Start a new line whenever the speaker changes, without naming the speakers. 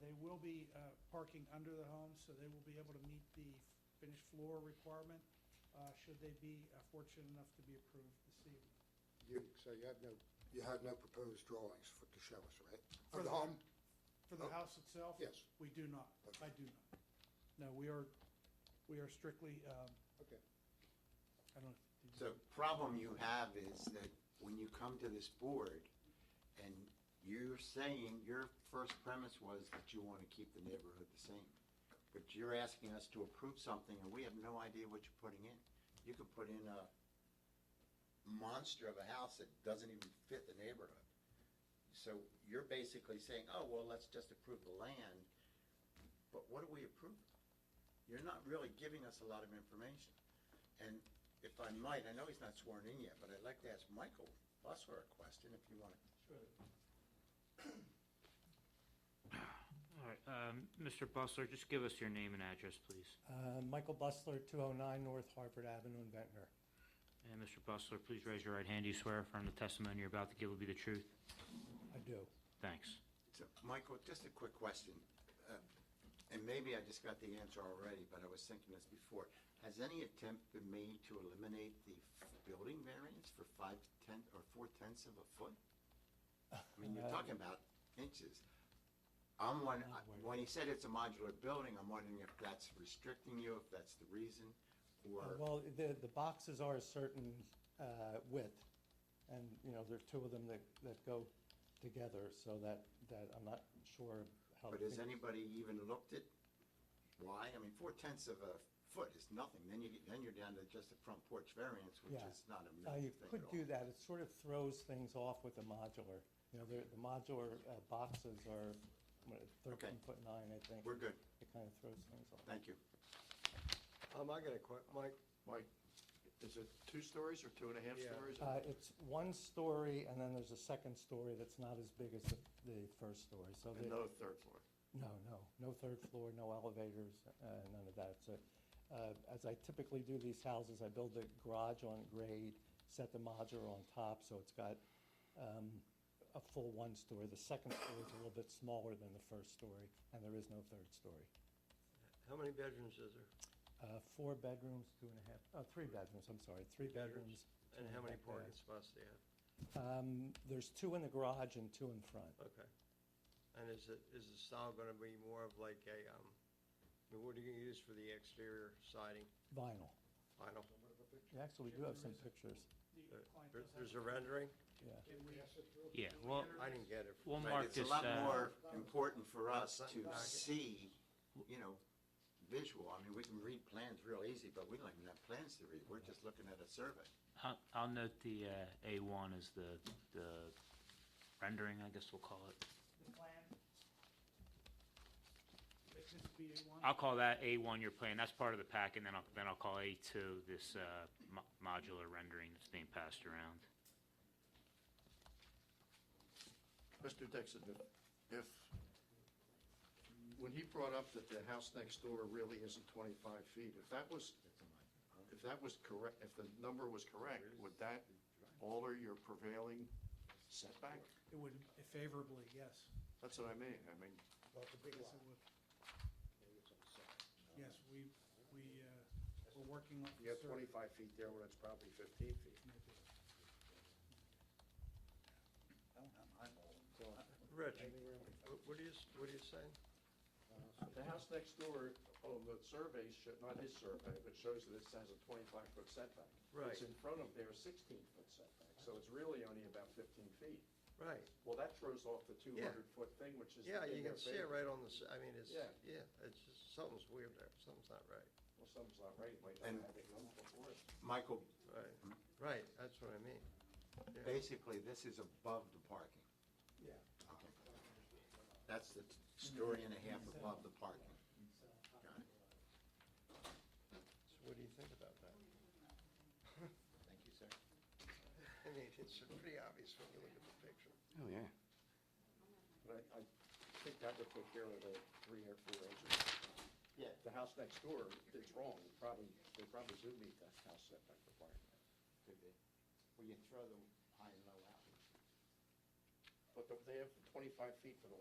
They will be uh, parking under the home, so they will be able to meet the finished floor requirement, uh, should they be uh, fortunate enough to be approved this evening.
You, so you have no, you have no proposed drawings for, to show us, right?
For the-
Of the home?
For the house itself?
Yes.
We do not. I do not. No, we are, we are strictly, um,
Okay.
I don't. did you-
The problem you have is that when you come to this board and you're saying your first premise was that you want to keep the neighborhood the same, but you're asking us to approve something and we have no idea what you're putting in. You could put in a monster of a house that doesn't even fit the neighborhood. So you're basically saying, oh, well, let's just approve the land, but what are we approving? You're not really giving us a lot of information. And if I might, I know he's not sworn in yet, but I'd like to ask Michael Busser a question if you want to.
All right, um, Mr. Bustler, just give us your name and address, please.
Uh, Michael Bustler, 209 North Harvard Avenue in Ventnor.
And Mr. Bustler, please raise your right hand. Do you swear affirm the testimony you're about to give will be the truth?
I do.
Thanks.
So, Michael, just a quick question. Uh, And maybe I just got the answer already, but I was thinking this before. Has any attempt been made to eliminate the f- building variance for five tenth or four tenths of a foot? I mean, you're talking about inches. I'm wondering, when he said it's a modular building, I'm wondering if that's restricting you, if that's the reason,
Uh,
or,
Well, the, the boxes are a certain uh, width, and, you know, there are two of them that, that go together, so that, that I'm not sure how. to
but has
think-
anybody even looked at why? I mean, four tenths of a foot is nothing. Then you, get- then you're down to just a front porch variance, which
Yeah.
is not a
Uh,
major
You
thing at
could
all.
do that, it sort of throws things off with the modular. You know, the the modular uh, boxes are what, 13 foot 9, I think.
We're good.
It kind of throws things off.
Thank you.
Um, I got a que, Mike,
Mike, is it two stories or two and a half
Yeah.
stories?
Uh, It's one story, and then there's a second story that's not as big as the, the first story, so.
And
the-
no third floor?
No, no, no third floor, no elevators, uh, none of that. So, uh, as I typically do these houses, I build the garage on grade, set the modular on top, so it's got um, a full one story. The second story is a little bit smaller than the first story, and there is no third story.
how many bedrooms is there?
Uh, Four bedrooms, two and a half, oh, three bedrooms, I'm sorry, three bedrooms. two
And how
a
many
half bath.
parking spots do you have?
Um, There's two in the garage and two in front.
Okay. And is it, is the style gonna be more of like a, um, I mean, what are you gonna use for the exterior siding,
Vinyl.
vinyl?
Actually, we do have some pictures,
The
There-
client does have-
There's a rendering?
yeah.
Yeah, well,
I didn't get it.
we'll
Right,
mark
it's a
this,
lot
uh,
more important for us
Something
to
like it.
see, you know, visual. I mean, we can read plans real easy, but we don't even have plans to read. We're just looking at a survey.
I'll, I'll note the, uh, A1 is the, the rendering, I guess we'll call it.
The plan. This is B one.
I'll call that A1 your plan. That's part of the pack, and then I'll, then I'll call A2 this, uh, mo- modular rendering that's being passed around.
Mr. Dixon, if- if, when he brought up that the house next door really isn't 25 feet, if that was, if that was correct, if the number was correct, would that alter your prevailing setback?
It would favorably, yes.
That's what I mean, I mean,
Yes, it would. Yes, we, we, uh, we're working on.
you have 25 feet there when it's probably 15 feet.
Rich, wh- what are you, s- what are you saying?
The house next door, on the survey, sho- not his survey, but shows that it has a 25-foot setback.
Right.
It's in front of their 16-foot setback, so it's really only about 15 feet.
Right,
Well, that throws off the 200-foot thing, which is.
yeah,
in
you
their
can see it
favor.
right on the, s- I mean, it's,
Yeah.
yeah, it's just, something's weird there, something's not right.
Well, something's not right, it might
And-
not have it done before.
Michael,
Right, right, that's what I mean. Yeah.
basically, this is above the parking.
Yeah.
Okay. That's the story and a half above the parking. Got it.
So what do you think about that?
Thank you, sir.
I mean, it's pretty obvious when you look at the picture.
Oh, yeah.
But I, I think that would take care of the three or four inches.
Yeah.
The house next door, it's wrong, It probably, they probably do meet that house setback requirement.
Could be. Well, you throw the high and low out.
But they have 25 feet for the